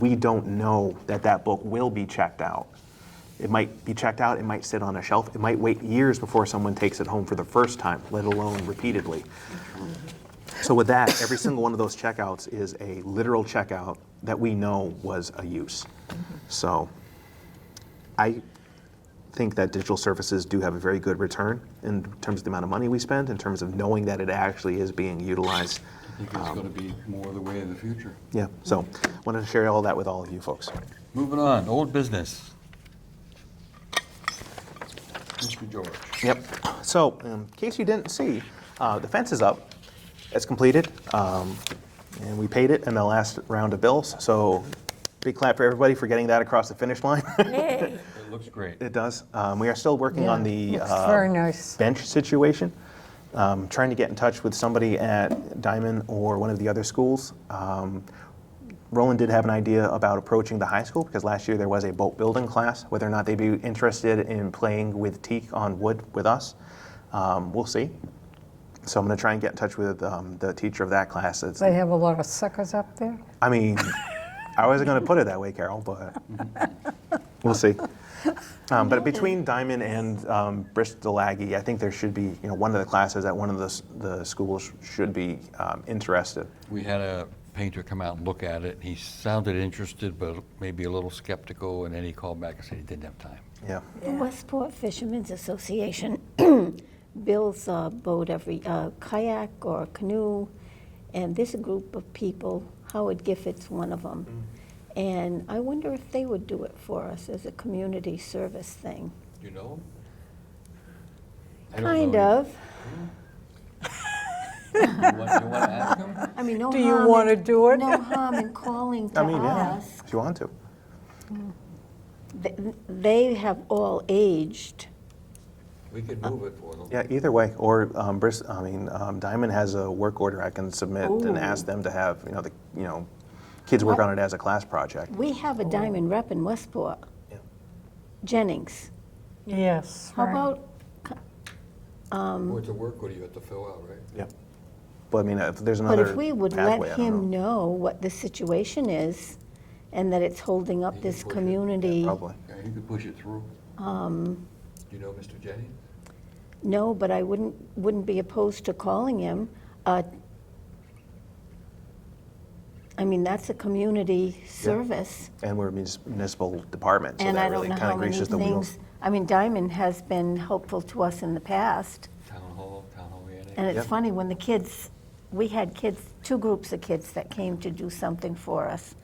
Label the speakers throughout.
Speaker 1: We don't know that that book will be checked out. It might be checked out, it might sit on a shelf, it might wait years before someone takes it home for the first time, let alone repeatedly. So with that, every single one of those checkouts is a literal checkout that we know was a use. So I think that digital services do have a very good return in terms of the amount of money we spend, in terms of knowing that it actually is being utilized.
Speaker 2: I think it's going to be more the way of the future.
Speaker 1: Yeah, so wanted to share all that with all of you folks.
Speaker 2: Moving on, old business. Mr. George.
Speaker 1: Yep. So, um, in case you didn't see, uh, the fence is up. It's completed, um, and we paid it in the last round of bills. So, big clap for everybody for getting that across the finish line.
Speaker 3: Yay.
Speaker 2: It looks great.
Speaker 1: it does. Um, we are still working on the
Speaker 3: Yeah, looks
Speaker 1: uh,
Speaker 3: very nice.
Speaker 1: bench situation. Um, trying to get in touch with somebody at Diamond or one of the other schools. Um, Roland did have an idea about approaching the high school because last year there was a boat building class. Whether or not they'd be interested in playing with teak on wood with us, um, we'll see. So I'm going to try and get in touch with um, the teacher of that class. It's,
Speaker 3: They have a lot of suckers up there.
Speaker 1: I mean, I wasn't going to put it that way, Carol, but we'll see. Um, but between Diamond and um, Bristol Aggie, I think there should be, you know, one of the classes at one of the, s- the schools should be um, interested.
Speaker 2: We had a painter come out and look at it. He sounded interested, but maybe a little skeptical, and then he called back and said he didn't have time.
Speaker 1: Yeah.
Speaker 4: The Westport Fishermen's Association builds a boat every, a kayak or canoe, and this group of people, Howard Giffords, one of them. And I wonder if they would do it for us as a community service thing.
Speaker 2: You know?
Speaker 4: Kind of.
Speaker 2: You want to ask him?
Speaker 4: I mean, no
Speaker 3: Do you
Speaker 4: harm
Speaker 3: wanna
Speaker 4: in-
Speaker 3: do it?
Speaker 4: No harm in calling to
Speaker 1: I mean, yeah,
Speaker 4: us.
Speaker 1: if you want to.
Speaker 4: Th- They have all aged.
Speaker 2: We could move it for them.
Speaker 1: Yeah, either way, or um, Bris, I mean, um, Diamond has a work order I can submit and ask them to have, you know, the, you know, kids work on it as a class project.
Speaker 4: We have a diamond rep in Westport.
Speaker 1: Yeah.
Speaker 4: Jennings.
Speaker 3: Yes.
Speaker 4: How
Speaker 3: right.
Speaker 4: about
Speaker 2: It's a work order you have to fill out, right?
Speaker 1: Yeah. But I mean, if there's
Speaker 4: But
Speaker 1: another
Speaker 4: if we would
Speaker 1: pathway,
Speaker 4: let
Speaker 1: I don't know.
Speaker 4: him know what the situation is and that it's holding
Speaker 2: He
Speaker 4: up
Speaker 2: can
Speaker 4: this
Speaker 2: push it, yeah,
Speaker 4: community.
Speaker 1: Probably.
Speaker 2: Yeah, you could push it through. Do you know Mr. Jennings?
Speaker 4: No, but I wouldn't, wouldn't be opposed to calling him. Uh, I mean, that's a community service.
Speaker 1: And we're a munis- municipal department, so
Speaker 4: And I
Speaker 1: that
Speaker 4: don't
Speaker 1: really
Speaker 4: know
Speaker 1: kind
Speaker 4: how
Speaker 1: of
Speaker 4: many
Speaker 1: greases the wheels.
Speaker 4: things, I mean, Diamond has been helpful to us in the past.
Speaker 2: Town Hall, Town Hall Annex?
Speaker 4: And it's
Speaker 1: Yeah.
Speaker 4: funny, when the kids, we had kids, two groups of kids that came to do something for us.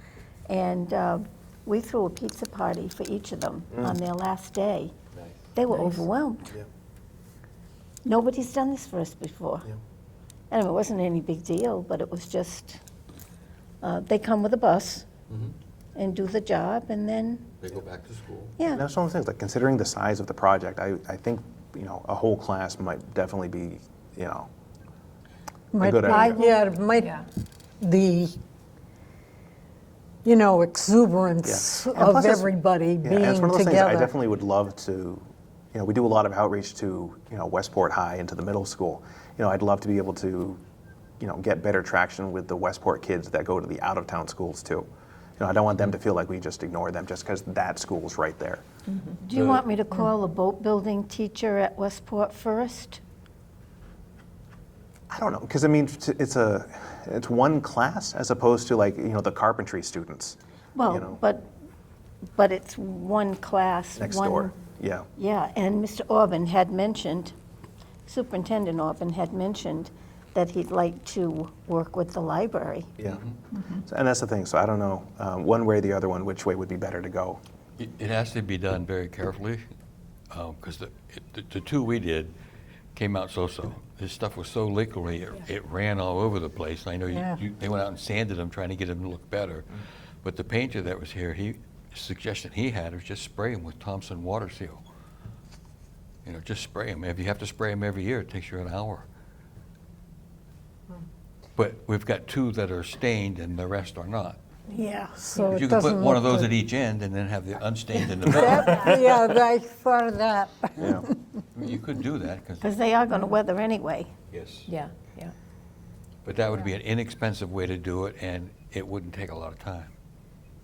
Speaker 4: And uh, we threw a pizza party for each of them on their last day.
Speaker 2: Nice.
Speaker 4: They were overwhelmed.
Speaker 1: Mm. Yeah.
Speaker 4: Nobody's done this for us before.
Speaker 1: Yeah.
Speaker 4: And it wasn't any big deal, but it was just, uh, they come with a bus
Speaker 1: Mm-hmm.
Speaker 4: and do the job, and then,
Speaker 2: They go back to school.
Speaker 4: yeah.
Speaker 1: And that's one of the things, like considering the size of the project, I, I think, you know, a whole class might definitely be, you know,
Speaker 3: Might
Speaker 1: good
Speaker 3: be-
Speaker 1: idea.
Speaker 3: Yeah, it might, the, you know, exuberance
Speaker 1: Yeah. And
Speaker 3: of
Speaker 1: plus it's-
Speaker 3: everybody
Speaker 1: Yeah, and
Speaker 3: being
Speaker 1: it's one of those things I
Speaker 3: together.
Speaker 1: definitely would love to, you know, we do a lot of outreach to, you know, Westport High and to the middle school. You know, I'd love to be able to, you know, get better traction with the Westport kids that go to the out of town schools too. You know, I don't want them to feel like we just ignore them just because that school's right there.
Speaker 4: Do you want me to call a boat building teacher at Westport first?
Speaker 1: I don't know, because I mean, t- it's a, it's one class as opposed to like, you know, the carpentry students You know.
Speaker 4: Well, but, but it's one class,
Speaker 1: next
Speaker 4: one-
Speaker 1: door. Yeah.
Speaker 4: Yeah, and Mr. Orban had mentioned, Superintendent Orban had mentioned that he'd like to work with the library.
Speaker 1: Yeah. So- and that's the thing. So I don't know, um, one way or the other one, which way would be better to go.
Speaker 2: It it has to be done very carefully, because the, it- the- the two we did came out so-so. This stuff was so liquidy, it- it ran all over the place. I know
Speaker 3: Yeah.
Speaker 2: you- you, they went out and sanded them, trying to get them to look better. But the painter that was here, he, suggestion he had was just spray them with Thompson Water Seal. You know, just spray them. If you have to spray them every year, it takes you an hour. But we've got two that are stained and the rest are not.
Speaker 3: Yeah, so
Speaker 2: You
Speaker 3: it
Speaker 2: could put
Speaker 3: doesn't
Speaker 2: one of
Speaker 3: look
Speaker 2: those at
Speaker 3: good.
Speaker 2: each end and then have the unstained in the middle.
Speaker 3: That- Yeah, I thought of that.
Speaker 1: Yeah.
Speaker 2: You could do that, because,
Speaker 4: Because they are going to weather anyway.
Speaker 2: yes,
Speaker 5: Yeah, yeah.
Speaker 2: but that would be an inexpensive way to do it, and it wouldn't take a lot of time.